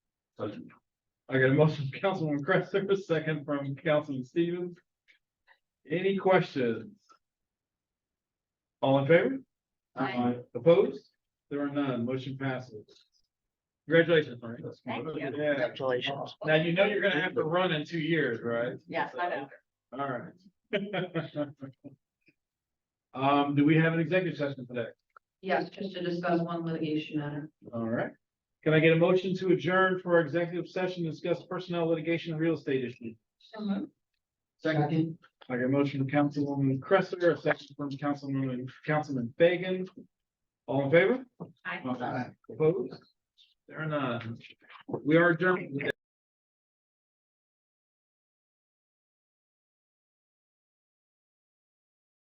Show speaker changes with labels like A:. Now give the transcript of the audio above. A: I got a motion from Councilman Cresser, a second from Councilman Stevens. Any questions? All in favor?
B: Aye.
A: Opposed? There are none, motion passes. Congratulations, Marie.
B: Thank you.
A: Yeah,
C: Congratulations.
A: now you know you're gonna have to run in two years, right?
B: Yes, I know.
A: All right. Um, do we have an executive session today?
D: Yes, just to discuss one litigation matter.
A: All right. Can I get a motion to adjourn for our executive session, to discuss personnel litigation, and real estate issues?
D: Second.
A: I got a motion from Councilwoman Cresser, a second from Councilwoman, Councilman Fagan. All in favor?
B: Aye.
A: Opposed? There are none. We are adjourned.